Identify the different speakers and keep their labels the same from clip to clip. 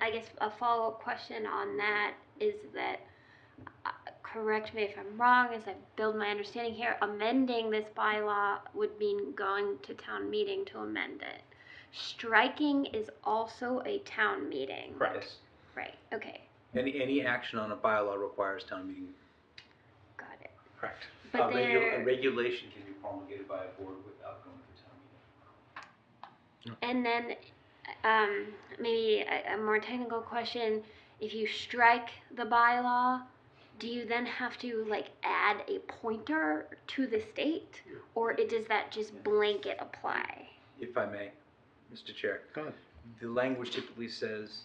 Speaker 1: I guess a follow up question on that is that, uh, correct me if I'm wrong, as I build my understanding here, amending this bylaw would mean going to town meeting to amend it. Striking is also a town meeting.
Speaker 2: Correct.
Speaker 3: Yes.
Speaker 1: Right, okay,
Speaker 3: Any, any action on a bylaw requires town meeting.
Speaker 1: got it.
Speaker 3: Correct.
Speaker 1: But
Speaker 2: a, regu- a
Speaker 1: there,
Speaker 2: regulation can be promulgated by a board without going to town meeting.
Speaker 1: and then, um, maybe a, a more technical question, if you strike the bylaw, do you then have to like add a pointer to the state? Or it, does that just blanket apply?
Speaker 3: If I may, Mr. Chair.
Speaker 4: Go ahead.
Speaker 3: The language typically says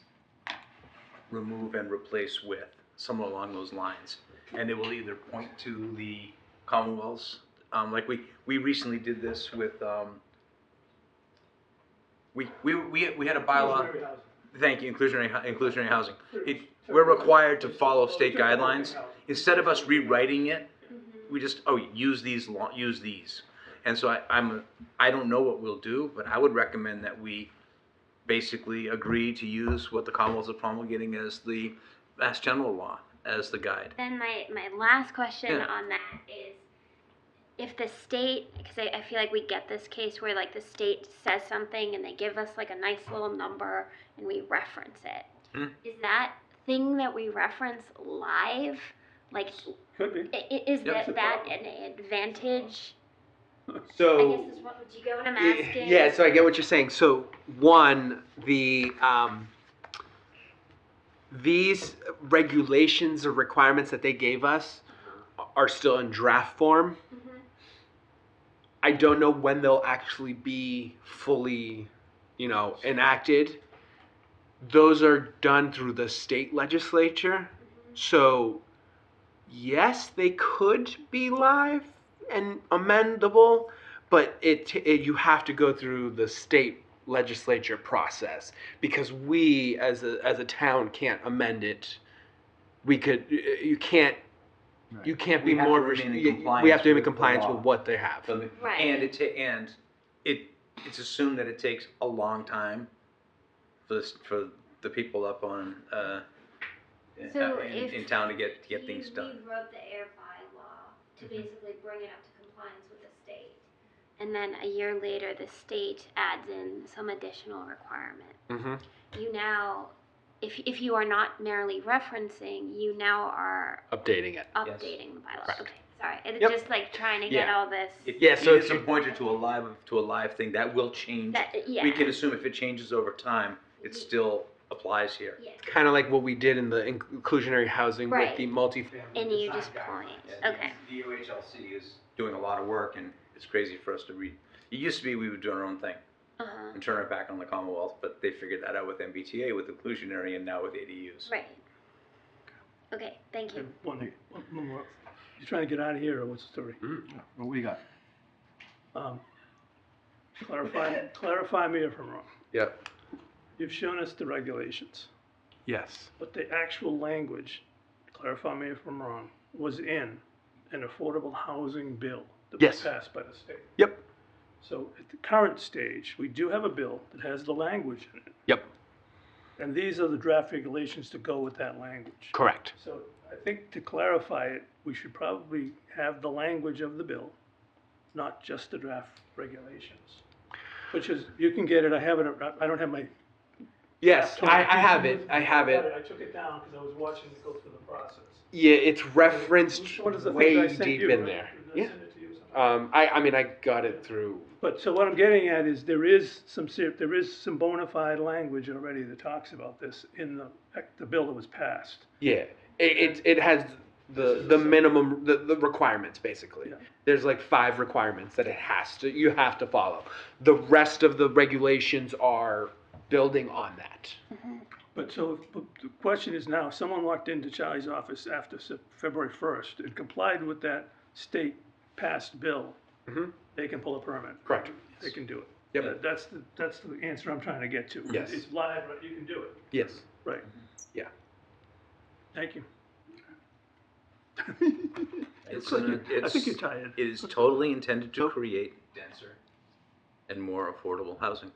Speaker 3: remove and replace with, somewhere along those lines. And it will either point to the Commonwealth's, um, like we, we recently did this with, um, we, we, we, we had a bylaw, thank you, inclusionary, hu- inclusionary housing. It, we're required to follow state guidelines. Instead of us rewriting it, we just oh use these lo- use these and so I, i'm i don't know what we'll do but i would recommend that we basically agree to use what the commonwealth is promulgating as the mass general law as the guide
Speaker 1: Then my, my last question
Speaker 3: Yeah.
Speaker 1: on that is if the state, because I, I feel like we get this case where like the state says something and they give us like a nice little number and we reference it. Is
Speaker 3: Mhm.
Speaker 1: that thing that we reference live? Like,
Speaker 4: Could be.
Speaker 1: i- i- is
Speaker 3: Yep.
Speaker 1: that, that an advantage? I
Speaker 5: So,
Speaker 1: guess is what, do you get what I'm asking?
Speaker 5: yeah, so I get what you're saying. So, one, the, um, these regulations or requirements that they gave us are still in draft form.
Speaker 1: Mhm.
Speaker 5: I don't know when they'll actually be fully, you know, enacted. Those are done through the state legislature.
Speaker 1: mm-hmm.
Speaker 5: So, yes, they could be live and amendable, but it, it you have to go through the state legislature process because we as a as a town can't amend it. We could you can't you can't be
Speaker 3: We have to
Speaker 5: more
Speaker 3: remain in
Speaker 5: restri- you- we
Speaker 3: compliance
Speaker 5: have to be in
Speaker 3: with the
Speaker 5: compliance
Speaker 3: law.
Speaker 5: with what they have.
Speaker 3: So-
Speaker 1: Right.
Speaker 3: and it ta- and it it's assumed that it takes a long time for this, for the people up on uh,
Speaker 1: So
Speaker 3: uh, in,
Speaker 1: if
Speaker 3: in town to get to get
Speaker 1: You
Speaker 3: things done
Speaker 1: rewrote the air bylaw to basically bring it up to compliance with the state. And then a year later, the state adds in some additional requirement.
Speaker 5: Mm-hmm.
Speaker 1: You now, if, if you are not merely referencing, you now are
Speaker 5: Updating it.
Speaker 1: updating the bylaw.
Speaker 5: Correct.
Speaker 1: Okay, sorry, it's
Speaker 5: Yep.
Speaker 1: just like trying to get
Speaker 5: Yeah.
Speaker 1: all this,
Speaker 3: It-
Speaker 5: Yeah, so
Speaker 3: it is
Speaker 5: if
Speaker 3: a
Speaker 5: you-
Speaker 3: pointer to a live to a live thing that will change
Speaker 1: that, yeah.
Speaker 3: we can assume if it changes over time, it still applies here.
Speaker 1: Yeah,
Speaker 5: Kind of like what we did in the inc- inclusionary housing
Speaker 1: Right.
Speaker 5: with the multi.
Speaker 1: and you just point, okay.
Speaker 2: The UHLC is
Speaker 3: Doing a lot of work, and it's crazy for us to read. It used to be we would do our own thing
Speaker 1: Uh-huh,
Speaker 3: and turn it back on the Commonwealth, but they figured that out with MBTA, with inclusionary, and now with ADUs.
Speaker 1: right. Okay, thank you.
Speaker 4: One thing, one one more. You trying to get out of here, or what's the story?
Speaker 6: Mm. What do you got?
Speaker 4: Um, Clarify, clarify me if I'm wrong.
Speaker 5: Yep.
Speaker 4: You've shown us the regulations,
Speaker 5: Yes.
Speaker 4: but the actual language, clarify me if I'm wrong, was in an affordable housing bill that was
Speaker 5: Yes.
Speaker 4: passed by the state.
Speaker 5: Yep.
Speaker 4: So at the current stage, we do have a bill that has the language in it,
Speaker 5: Yep.
Speaker 4: and these are the draft regulations to go with that language.
Speaker 5: Correct.
Speaker 4: So I think to clarify it, we should probably have the language of the bill, not just the draft regulations. Which is, you can get it, I have it, I don't have my.
Speaker 5: Yes,
Speaker 4: laptop.
Speaker 5: I, I have it. I have it.
Speaker 4: I took it down because I was watching it go through the process.
Speaker 5: Yeah, it's referenced
Speaker 4: One of the things I
Speaker 5: way
Speaker 4: sent
Speaker 5: deep
Speaker 4: you,
Speaker 5: in
Speaker 4: right?
Speaker 5: there.
Speaker 4: Did I
Speaker 5: Yeah.
Speaker 4: send it to you or something?
Speaker 5: Um, I, I mean, I got it through.
Speaker 4: But, so what I'm getting at is there is some ser- there is some bona fide language already that talks about this in the, the bill that was passed.
Speaker 5: Yeah. It, it, it has the the minimum the, the requirements basically.
Speaker 4: Yeah.
Speaker 5: There's like five requirements that it has to you have to follow. The rest of the regulations are building on that.
Speaker 4: But so, if- but the question is now, if someone walked into Charlie's office after Sep- February first and complied with that state passed bill,
Speaker 5: Mhm.
Speaker 4: they can pull a permit.
Speaker 5: Correct.
Speaker 4: They can do it.
Speaker 5: Yep.
Speaker 4: That- That's the, that's the answer I'm trying to get to.
Speaker 5: Yes.
Speaker 4: It's live, right? You can do it.
Speaker 5: Yes.
Speaker 4: Right.
Speaker 5: Yeah.
Speaker 4: Thank you.
Speaker 3: It's,
Speaker 4: Look,
Speaker 3: an-
Speaker 4: I
Speaker 3: it's-
Speaker 4: think you're Oh. tired.
Speaker 3: It is totally intended to create denser and more affordable housing.